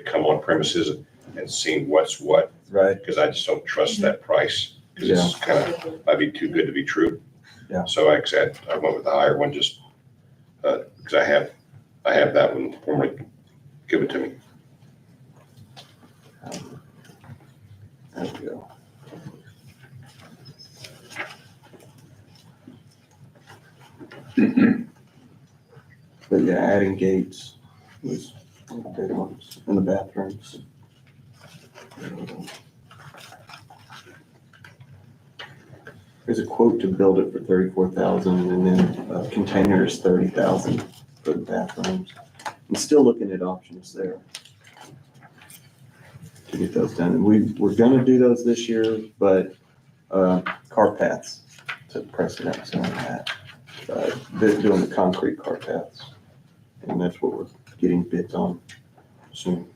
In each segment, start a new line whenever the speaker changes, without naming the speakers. come on premises and seen what's what,
Right.
because I just don't
Mm-hmm.
trust that price. Because it's kind of, might be too good to be true.
Yeah.
So like I said, I went with the higher one just, uh, because I have, I have that one formerly, give it to me.
There we go. But yeah, adding gates was one of the big ones in the bathrooms. There's a quote to build it for thirty-four thousand and then uh, containers thirty thousand for the bathrooms. I'm still looking at options there to get those done. And we, we're gonna do those this year, but, uh, car paths took precedence on that. Uh, They're doing the concrete car paths, and that's what we're getting bids on soon.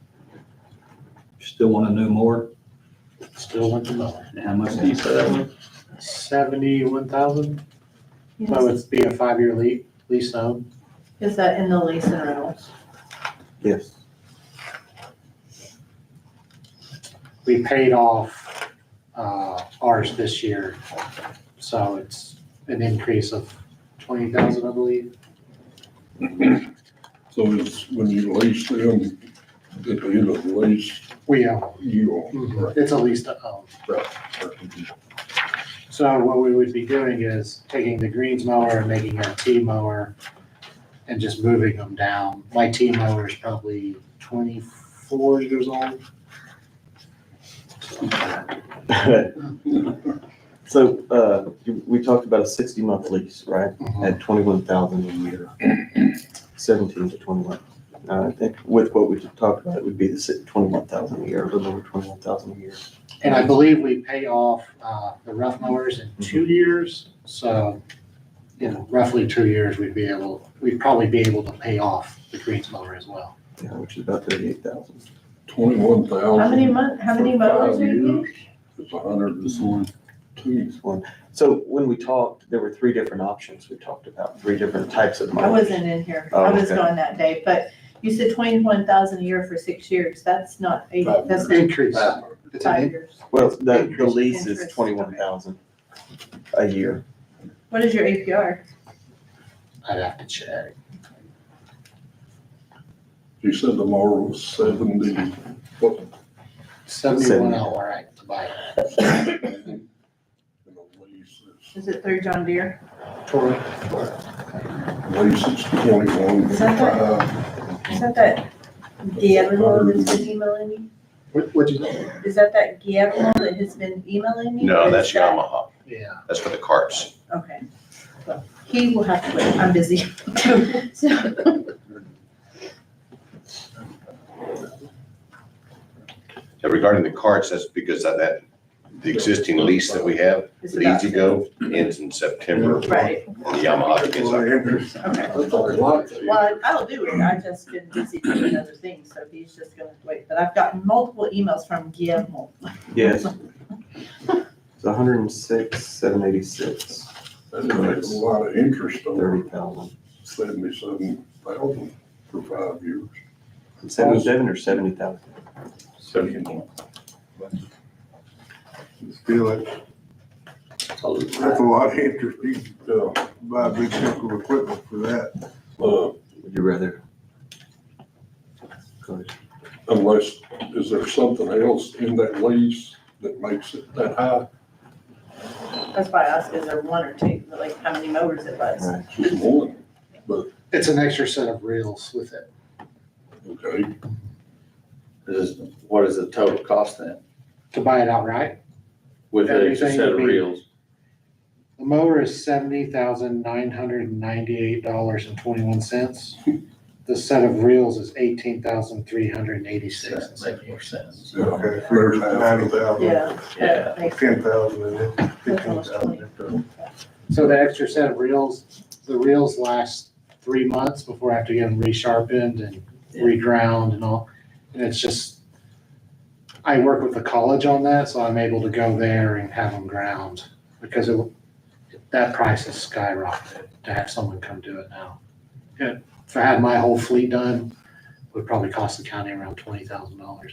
Still want to know more?
Still went to lower.
And how much do you say that one?
Seventy-one thousand,
Yes.
so it's be a five-year lease, lease own.
Is that in the lease and rentals?
Yes,
We paid off, uh, ours this year, so it's an increase of twenty thousand, I believe.
So it's when you lease them, at the end of the lease,
We own,
you own. Right.
it's a lease to own. So what we would be doing is taking the greens mower and making it a T mower and just moving them down. My T mower is probably twenty-four years old.
so, uh, you- we talked about a sixty-month lease, right? At twenty-one thousand a year, seventeen to twenty-one. Uh, I think with what we talked about, it would be the si- twenty-one thousand a year, a little over twenty-one thousand a year.
And I believe we pay off uh, the rough mowers in two years, so, you know, roughly two years, we'd be able, we'd probably be able to pay off the greens mower as well.
Yeah, which is about thirty-eight thousand.
Twenty-one thousand.
How many month, how many mowers are you getting?
It's a hundred
This
and
one?
two.
one. So when we talked, there were three different options we talked about, three different types of
I
mowers.
wasn't in here.
Oh,
I was
okay.
gone that day, but you said twenty-one thousand a year for six years. That's not, eight. that's not
Increase. It's an
five
in-
years.
Well, the, the
Interest-
lease is
interest,
twenty-one thousand a year.
What is your APR?
I'd have to check.
You said the mower was seventy, what?
Seventy-one hour, right, to buy it.
And the Lease is,
Is it through John Deere?
Totally.
lease is twenty-one.
Is that
five.
Is that that Guillermo that's been emailing you?
What, what'd you say?
Is that that Guillermo that has been emailing you?
No,
Or is
that's
that-
Yamaha.
Yeah.
That's for the carts.
Okay. Well, He will have to wait. I'm busy. So,
Now, Regarding the carts, that's because of that, the existing lease that we have,
it's
with
about-
Easy Go ends in September.
Right,
And the Yamaha begins
Well,
October.
Andrew,
okay.
That's a lot.
Well, I'll do it, I've just been busy doing other things, so he's just gonna wait, but I've gotten multiple emails from Guillermo.
Yes. It's a hundred and six, seven eighty-six,
That's a lot of interest on
thirty thousand.
seventy-seven thousand for five years.
Seventy-seven or seventy thousand?
Seventy-one.
Still, that's that's a lot of interest, you could, uh, buy a big chunk of equipment for that.
Uh,
Would you rather? Go ahead.
Unless, is there something else in that lease that makes it that high?
That's why I asked, is there one or two, like, how many mowers it was?
Right.
Just one,
It's an extra set of reels with it.
okay?
Is, what is the total cost then?
To buy it outright,
With the extra set of
Everything would be-
reels?
the mower is seventy thousand nine hundred and ninety-eight dollars and twenty-one cents. The set of reels is eighteen thousand three hundred and eighty-six
That makes more sense.
Okay, for ninety thousand,
Yeah,
Yeah.
that makes-
ten thousand, and then fifteen thousand.
So the extra set of reels, the reels last three months before I have to get them resharpened and reground and all. And it's just, I work with the college on that, so I'm able to go there and have them ground because it, that price has skyrocketed to have someone come do it now. Yeah, If I had my whole fleet done, would probably cost the county around twenty thousand dollars.